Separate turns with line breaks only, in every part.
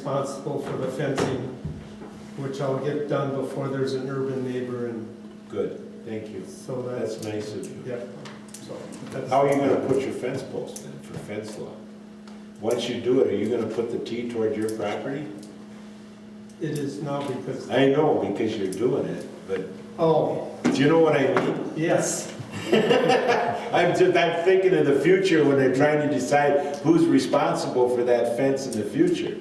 responsible for the fencing, which I'll get done before there's an urban neighbor and
Good, thank you.
so that's,
That's nice of you.
yeah. So that's,
How are you gonna put your fence post in for fence law? Once you do it, are you gonna put the T toward your property?
it is now because,
I know, because you're doing it, but
oh,
do you know what I mean?
yes,
I'm just, I'm thinking of the future when they're trying to decide who's responsible for that fence in the future.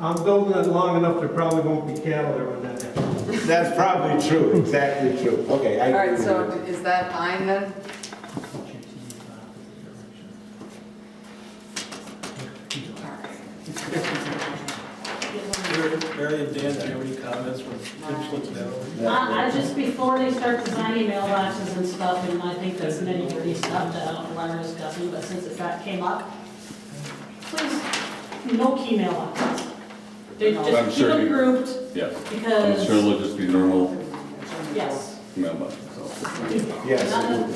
I'm building it long enough, there probably won't be cattle there when that happens.
That's probably true, exactly true. Okay, I
All
agree
right,
with
so
you.
is that fine then? All right.
Mary and Dan, do you have any comments from, just look it over?
I, I just, before they start designing mailboxes and stuff, and I think there's many pretty stuff that I don't want to discuss, but since it got, came up, please, no key mailboxes. They
I'm
just keep
sure
them
you-
grouped,
Yes, I'm sure
because,
it'll just be normal
yes,
mailboxes.
Yes,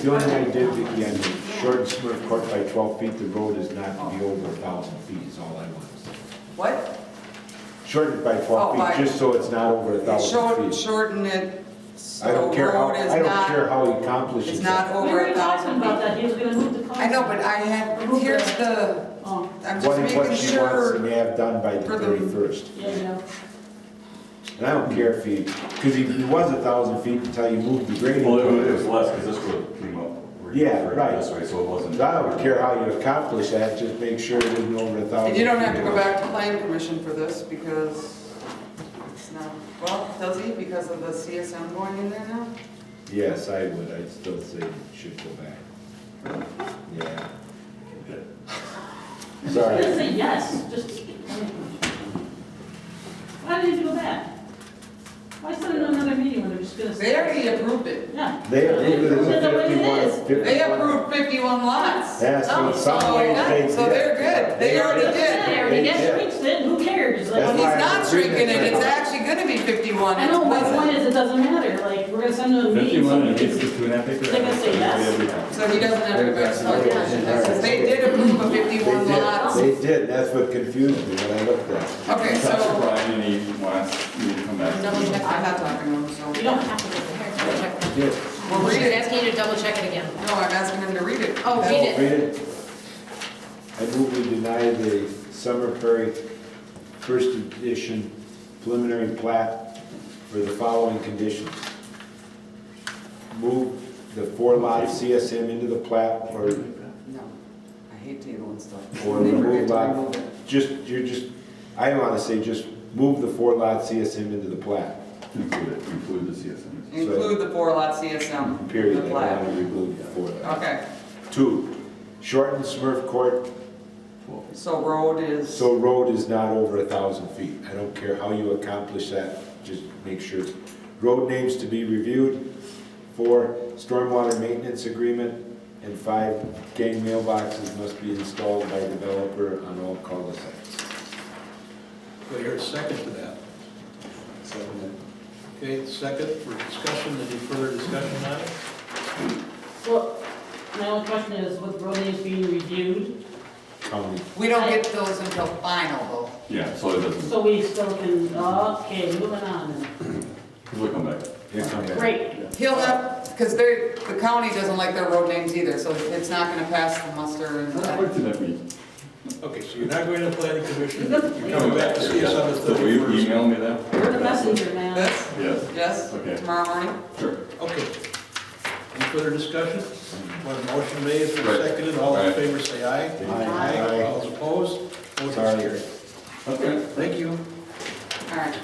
the only thing I did, Vicki, on the short and smart court by twelve feet, the road is not to be over a thousand feet is all I want to say.
What?
Shorten it by
Oh,
twelve
by-
feet, just so it's not over a thousand
Short-
feet.
Shorten it so
I don't care how,
road
I
is
don't care
not,
how he accomplishes
is
it.
not
we
over
were
a
talking
thousand
about
feet.
that, he was gonna move the cars.
I know, but I had, here's the,
Oh,
I'm
What
just
he, what
making
she wants
sure.
to have done by
for
the
the-
thirty-first.
yeah, you know,
And I don't care if he, because he, he was a thousand feet until you moved the grading.
Well, it was- it was less, because this road came up. where you
Yeah,
were
right.
This way, so it wasn't.
I don't care how you accomplish that, just make sure it isn't over a thousand.
And you don't have to
feet.
go back to plan commission for this because it's not, well, does he because of the CSM going in there now?
Yes, I would, I'd still say you should go back. Yeah. Sorry.
just say yes, just. Why did you go back? Why send them another meeting when they're just gonna?
They already approved it.
Yeah.
They approved it as
That's the way
a
it is.
fifty-one.
They approved 51 lots.
Yes,
Oh,
in some
so
ways they
yeah, So
did.
they're good. They already did.
Yeah, we
Yeah.
get streets then, who cares? Like,
That's
He's
why I
not
was reading
shrinking it,
it.
it's actually gonna be 51.
I know, my
It's
point is, it doesn't matter, like, we're gonna send them a meeting.
Fifty-one and it's just two and a half acres.
They're gonna say yes.
So he doesn't have to go, so yeah, because they did approve of
They
51
did,
lots.
they did, that's what confused me when I looked at it.
Okay,
Talk to
so,
Brian, and he wants me to come back.
no, I'm not talking to him, so.
You don't have to go there.
Yes.
Well, read
She's
it.
asking you to double check it again.
No, I'm asking him to read it.
Oh, read it.
Read it. I move we deny the Summer Prairie First Edition preliminary plat for the following conditions. Move the four lot CSM into the plat or,
No, I hate table and stuff.
or
They forget
remove
to
lot,
remove it.
just, you're just, I want to say just move the four lot CSM into the plat,
Include it, include the CSM.
Include the four lot CSM.
period.
The
I
plat. Oh,
want to remove the four lot.
Okay,
Two, shorten Smurf Court
so road is,
So road is not over a thousand feet. I don't care how you accomplish that, just make sure. Road names to be reviewed, four, stormwater maintenance agreement, and five, gang mailboxes must be installed by developer on all cul-de-sacs.
Do I hear a second to that? Okay, second for discussion, any further discussion on it?
Well, my only question is, with road names being reviewed,
County.
we don't get those until final
Yeah, so it doesn't,
so we still can, okay, moving on then.
we'll come back.
Here come that.
Great,
though. He'll have, because they, the county doesn't like their road names either, so it's not gonna pass the muster and.
What did that mean?
Okay, so you're not going to planning commission, you're coming back to see us on the
So will you
thirty-first.
email me that?
you're the messenger, man.
This?
Yes,
Yes,
Okay.
tomorrow morning?
sure.
Okay. Any further discussion? One motion made, it's been
Right.
seconded, all in
Right.
favor, say aye.
Aye. Aye.
All opposed, motion
Sorry.
carried.
Okay.
Thank you.
All right.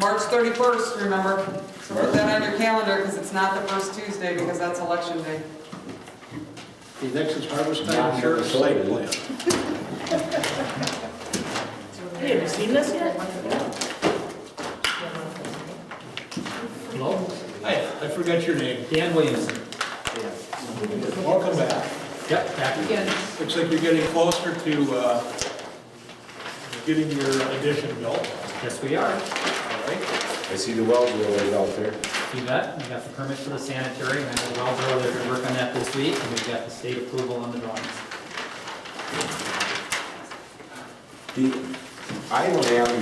March 31st, remember, so put that on your calendar, because it's not the first Tuesday, because that's election day.
The next is harvest
Not
time insurance site plan.
necessarily.
Hey, have you seen this yet?
Hello? Hi, I forgot your name.
Dan Williamson.
Welcome back.
Yep, back again.
Looks like you're getting closer to uh, getting your addition built,
Yes, we are.
all right?
I see the well drillers out there.
You bet. We got the permit for the sanitary, and I have a well driller that's gonna work on that this week, and we've got the state approval on the drawings.
The, I don't have